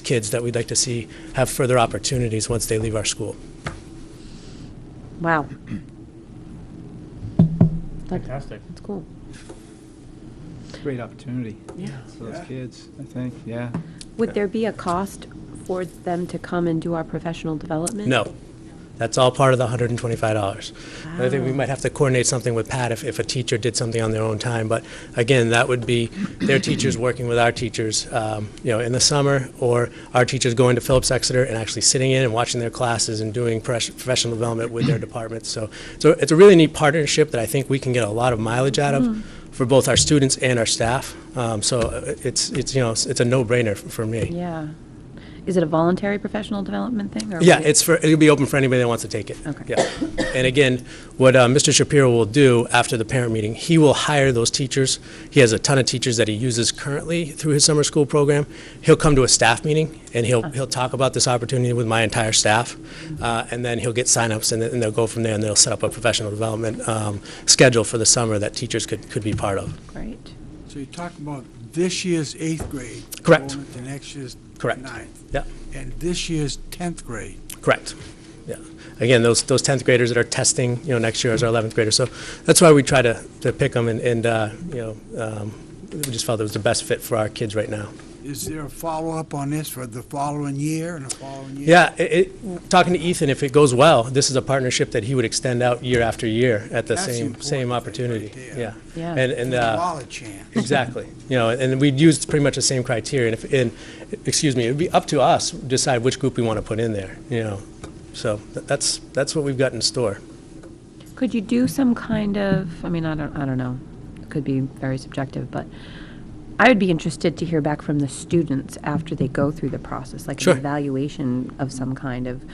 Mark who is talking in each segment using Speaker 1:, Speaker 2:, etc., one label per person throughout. Speaker 1: kids that we'd like to see have further opportunities once they leave our school.
Speaker 2: Wow.
Speaker 3: Fantastic.
Speaker 2: That's cool.
Speaker 4: Great opportunity for those kids, I think, yeah.
Speaker 2: Would there be a cost for them to come and do our professional development?
Speaker 1: No. That's all part of the $125. And I think we might have to coordinate something with Pat if, if a teacher did something on their own time. But again, that would be their teachers working with our teachers, um, you know, in the summer, or our teachers going to Phillips Exeter and actually sitting in and watching their classes and doing pres- professional development with their departments. So, so it's a really neat partnership that I think we can get a lot of mileage out of for both our students and our staff. Um, So uh, it's, it's, you know, it's it's a no-brainer f- for me.
Speaker 2: Yeah. Is it a voluntary professional development thing? or
Speaker 1: Yeah,
Speaker 2: would it-
Speaker 1: it's for, it'll be open for anybody that wants to take it.
Speaker 2: Okay.
Speaker 1: Yeah. And again, what uh, Mr. Shapiro will do after the parent meeting, he will hire those teachers. He has a ton of teachers that he uses currently through his summer school program. He'll come to a staff meeting, and he'll, he'll talk about this opportunity with my entire staff. uh, And then he'll get signups, and then and they'll go from there, and they'll set up a professional development um, schedule for the summer that teachers could, could be part of.
Speaker 2: Great.
Speaker 5: So you're talking about this year's eighth grade.
Speaker 1: Correct.
Speaker 5: Going into next year's
Speaker 1: Correct.
Speaker 5: ninth.
Speaker 1: Yeah.
Speaker 5: And this year's 10th grade.
Speaker 1: Correct. Yeah. Again, those, those 10th graders that are testing, you know, next year as our 11th graders. So that's why we try to, to pick them and, and, uh, you know, um, we just felt it was the best fit for our kids right now.
Speaker 5: Is there a follow-up on this for the following year and the following year?
Speaker 1: Yeah, it, it, talking to Ethan, if it goes well, this is a partnership that he would extend out year after year at the
Speaker 5: That's the
Speaker 1: same,
Speaker 5: important
Speaker 1: same
Speaker 5: thing
Speaker 1: opportunity.
Speaker 5: right there.
Speaker 1: Yeah.
Speaker 2: Yeah.
Speaker 1: And, and,
Speaker 5: The
Speaker 1: uh,
Speaker 5: Wallet chance.
Speaker 1: Exactly. You know, and we'd use pretty much the same criteria. And if, and, excuse me, it'd be up to us to decide which group we want to put in there, you know. So th- that's, that's what we've got in store.
Speaker 2: Could you do some kind of, I mean, I don't, I don't know, it could be very subjective, but I would be interested to hear back from the students after they go through the process, like
Speaker 1: Sure.
Speaker 2: an evaluation of some kind of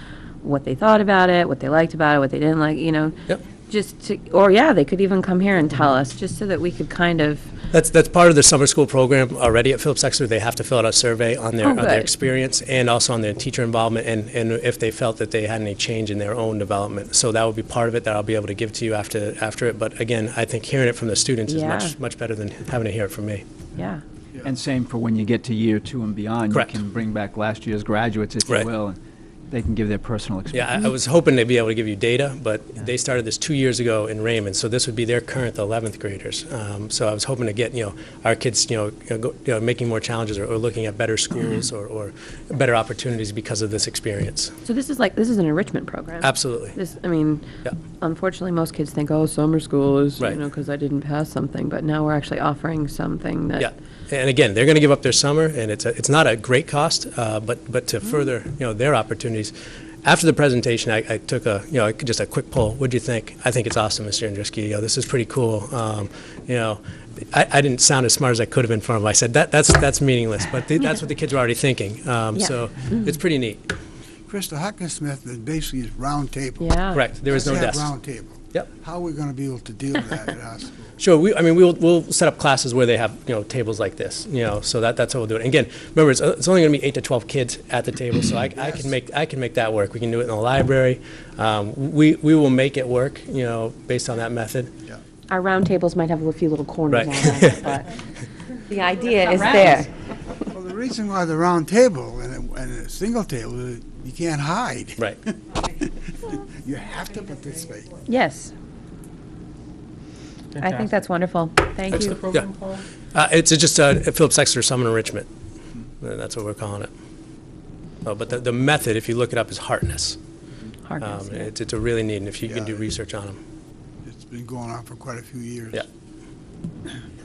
Speaker 2: what they thought about it, what they liked about it, what they didn't like, you know?
Speaker 1: Yep.
Speaker 2: Just to, or yeah, they could even come here and tell us, just so that we could kind of,
Speaker 1: That's, that's part of the summer school program already at Phillips Exeter. They have to fill out a survey on their,
Speaker 2: Oh,
Speaker 1: on their
Speaker 2: good.
Speaker 1: experience and also on their teacher involvement and, and if they felt that they had any change in their own development. So that would be part of it that I'll be able to give to you after, after it. But again, I think hearing it from the students is
Speaker 2: Yeah.
Speaker 1: much, much better than having to hear it from me.
Speaker 2: yeah.
Speaker 4: And same for when you get to year two and beyond.
Speaker 1: Correct.
Speaker 4: You can bring back last year's graduates, if you
Speaker 1: Right.
Speaker 4: will, and they can give their personal experience.
Speaker 1: Yeah, I, I was hoping to be able to give you data, but they started this two years ago in Raymond, so this would be their current 11th graders. Um, so I was hoping to get you know our kids you know, you know, go, you know making more challenges or, or looking at better schools or,
Speaker 2: Mm-hmm.
Speaker 1: or better opportunities because of this experience.
Speaker 2: So this is like, this is an enrichment program.
Speaker 1: Absolutely.
Speaker 2: This, I mean,
Speaker 1: Yeah.
Speaker 2: unfortunately, most kids think, oh, summer school is, you
Speaker 1: Right.
Speaker 2: know, because I didn't pass something, but now we're actually offering something that.
Speaker 1: Yeah, and again, they're going to give up their summer, and it's, a- it's not a great cost, uh, but, but to further, you know, their opportunities. After the presentation, I, I took a, you know, just a quick poll, what'd you think? I think it's awesome, Mr. Andruski, you know, this is pretty cool. Um, You know, I, I didn't sound as smart as I could have in front of them. I said, that, that's, that's meaningless, but the- that's what the kids were already thinking. Um,
Speaker 2: Yeah.
Speaker 1: So it's pretty neat,
Speaker 5: Crystal Hawkinsmith is basically is round table.
Speaker 2: Yeah.
Speaker 1: correct, there is no
Speaker 5: Let's have
Speaker 1: desk.
Speaker 5: round table.
Speaker 1: Yep.
Speaker 5: How are we going to be able to deal with that at our school?
Speaker 1: Sure, we, I mean, we'll, we'll set up classes where they have, you know, tables like this, you know, so that, that's how we'll do it. And again, remember, it's, it's only gonna be eight to twelve kids at the table, so I, I can make, I can make that work. We can do it in the library. Um, we, we will make it work, you know, based on that method.
Speaker 2: Our round tables might have a few little corners
Speaker 1: Right.
Speaker 2: on them, but the idea is
Speaker 3: rounds.
Speaker 2: there.
Speaker 5: Well, the reason why the round table and a, and a single table, is you can't hide.
Speaker 1: Right.
Speaker 5: You have to participate.
Speaker 2: Yes, I think that's wonderful. Thank
Speaker 3: What's the
Speaker 2: you.
Speaker 3: program called?
Speaker 1: Uh, it's just, uh, Phillips Exeter Summer Enrichment. Uh, That's what we're calling it. Oh, but the, the method, if you look it up, is Hartness.
Speaker 2: Harkness,
Speaker 1: Um,
Speaker 2: yeah.
Speaker 1: it's, it's a really neat, and if you can
Speaker 5: Yeah.
Speaker 1: do research on them,
Speaker 5: It's been going on for quite a few years.
Speaker 1: yeah.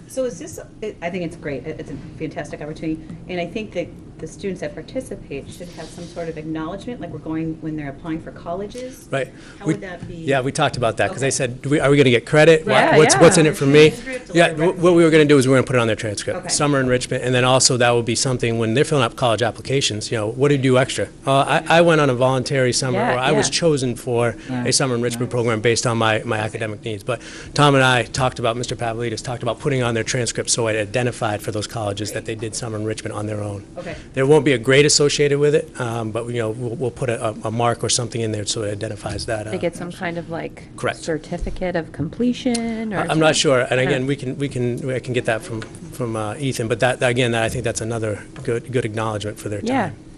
Speaker 6: So is this, I I think it's great, It- it's a fantastic opportunity, and I think that the students that participate should have some sort of acknowledgement, like we're going, when they're applying for colleges.
Speaker 1: Right.
Speaker 6: How
Speaker 1: We-
Speaker 6: would that be?
Speaker 1: Yeah, we talked about that, because they
Speaker 6: Okay.
Speaker 1: said, do we, are we going to get credit? Wha-
Speaker 2: Yeah,
Speaker 1: What's, what's in
Speaker 2: yeah.
Speaker 1: it for me?
Speaker 6: Transcript or
Speaker 1: Yeah,
Speaker 6: like
Speaker 1: wh- what we were going to do is we are going to put it on their transcript.
Speaker 6: Okay.
Speaker 1: Summer enrichment, and then also that will be something, when they're filling out college applications, you know, what did you do extra? Uh, I, I went on a voluntary summer,
Speaker 2: Yeah,
Speaker 1: or I was
Speaker 2: yeah.
Speaker 1: chosen for a summer enrichment program based on my, my academic needs. But Tom and I talked about, Mr. Pavlidis talked about putting on their transcripts, so it identified for those colleges that they did summer enrichment on their own.
Speaker 6: Okay.
Speaker 1: There won't be a grade associated with it, um, but, you know, we'll, we'll put a, a- a mark or something in there so it identifies that. uh,
Speaker 2: They get some kind of like.
Speaker 1: Correct.
Speaker 2: Certificate of completion or.
Speaker 1: I- I'm not
Speaker 2: something.
Speaker 1: sure, and
Speaker 2: I don't
Speaker 1: again,
Speaker 2: know.
Speaker 1: we can, we can, I can get that from, from uh, Ethan, but that, again, I think that's another good, good acknowledgement for their
Speaker 2: Yeah,
Speaker 1: time.